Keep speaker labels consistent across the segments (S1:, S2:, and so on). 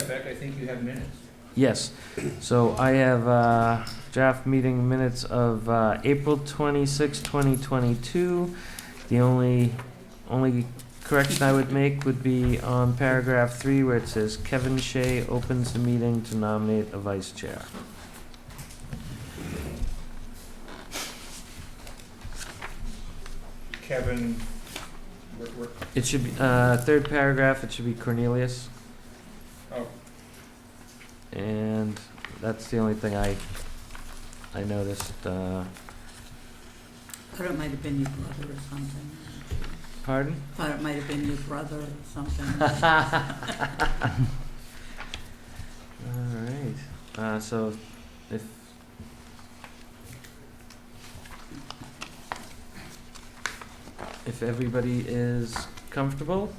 S1: fact, I think you have minutes.
S2: Yes, so I have uh, draft meeting minutes of uh, April 26, 2022. The only, only correction I would make would be on paragraph three where it says Kevin Shea opens the meeting to nominate a vice chair.
S1: Kevin, we're- we're-
S2: It should be, uh, third paragraph, it should be Cornelius,
S1: oh,
S2: and that's the only thing I, I noticed. uh,
S3: Thought it might have been your brother or something.
S2: Pardon?
S3: Thought it might have been your brother or something.
S2: All right. Uh, so if if everybody is comfortable,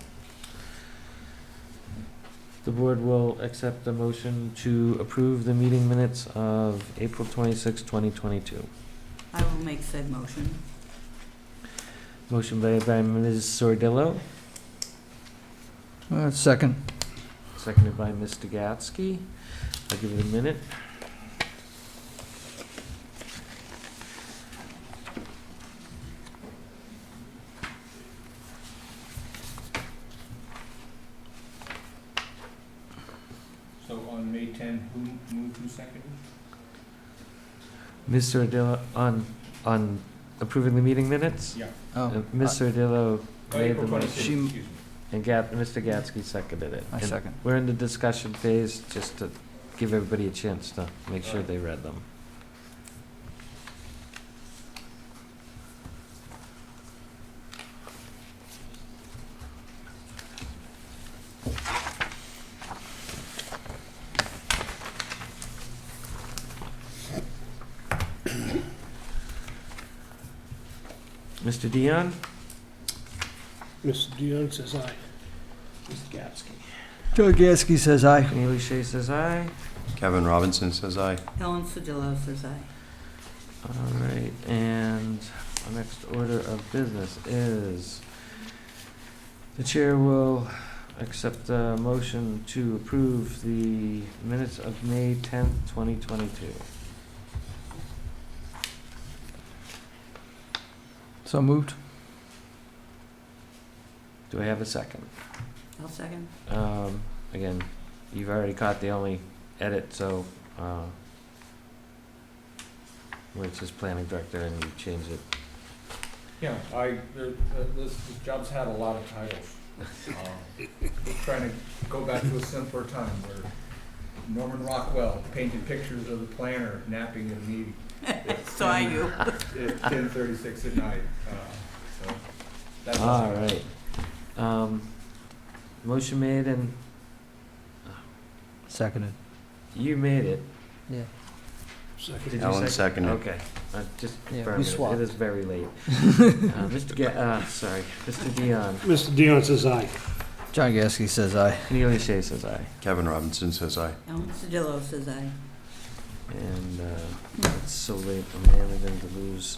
S2: the board will accept the motion to approve the meeting minutes of April 26, 2022.
S3: I will make said motion.
S2: Motion by, by Ms. Sordillo,
S4: Uh, Second.
S2: seconded by Mr. Gatsky. I'll give it a minute.
S1: so on May 10, who moved who seconded?
S2: Mr. Sordillo, on, on approving the meeting minutes?
S1: Yeah.
S2: Uh,
S4: Oh,
S2: Ms. Sordillo
S1: Oh,
S2: made the
S1: April
S2: motion,
S1: 26,
S4: She-
S1: excuse me.
S2: and Gat, Mr. Gatsky seconded it.
S4: I
S2: And
S4: second.
S2: We're in the discussion phase, just to give everybody a chance to make sure
S1: Alright.
S2: they read them. Mr. Dion?
S5: Mr. Dion says aye. Mr. Gasky.
S4: Joe Gasky says aye.
S2: Cornelius Shea says aye.
S6: Kevin Robinson says aye.
S3: Helen Sodillo says aye.
S2: All right, and our next order of business is the chair will accept a motion to approve the minutes of May tenth, twenty twenty-two.
S4: So moved.
S2: Do I have a second?
S3: I'll second.
S2: Um, again, you've already caught the only edit, so, uh, where it says planning director and you change it.
S1: Yeah, I, there- uh, this, this job's had a lot of titles. Um, Trying to go back to a simpler time where Norman Rockwell painted pictures of the planner napping in a meeting
S3: So are you.
S1: at ten thirty-six at night, uh, so. that was-
S2: All right. Um, motion made and
S4: Seconded.
S2: you made it.
S4: Yeah.
S5: Second.
S2: Did you
S6: Alan
S2: second?
S6: seconded.
S2: Okay, uh, just
S4: Yeah,
S2: for a
S4: we
S2: minute,
S4: swapped.
S2: it is very late. Uh, Mr. Ga, uh, sorry, Mr. Dion,
S5: Mr. Dion says aye.
S4: John Gasky says aye.
S2: Cornelius Shea says aye,
S6: Kevin Robinson says aye.
S3: Helen Sodillo says aye.
S2: and, uh, it's so late, I'm managing to lose.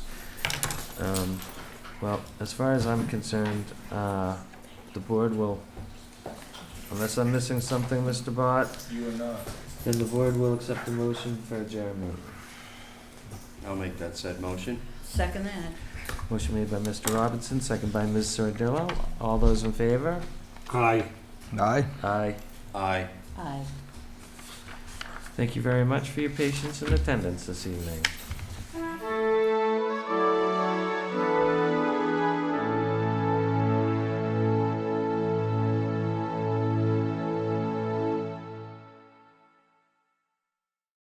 S2: Um, well, as far as I'm concerned, uh, the board will, unless I'm missing something, Mr. Bott,
S1: You and, uh,
S2: then the board will accept the motion for adjournment.
S6: I'll make that said motion.
S3: Second that.
S2: Motion made by Mr. Robinson, second by Ms. Sardillo, all those in favor?
S5: Aye.
S4: Aye.
S2: Aye.
S6: Aye.
S3: Aye.
S2: Thank you very much for your patience and attendance this evening.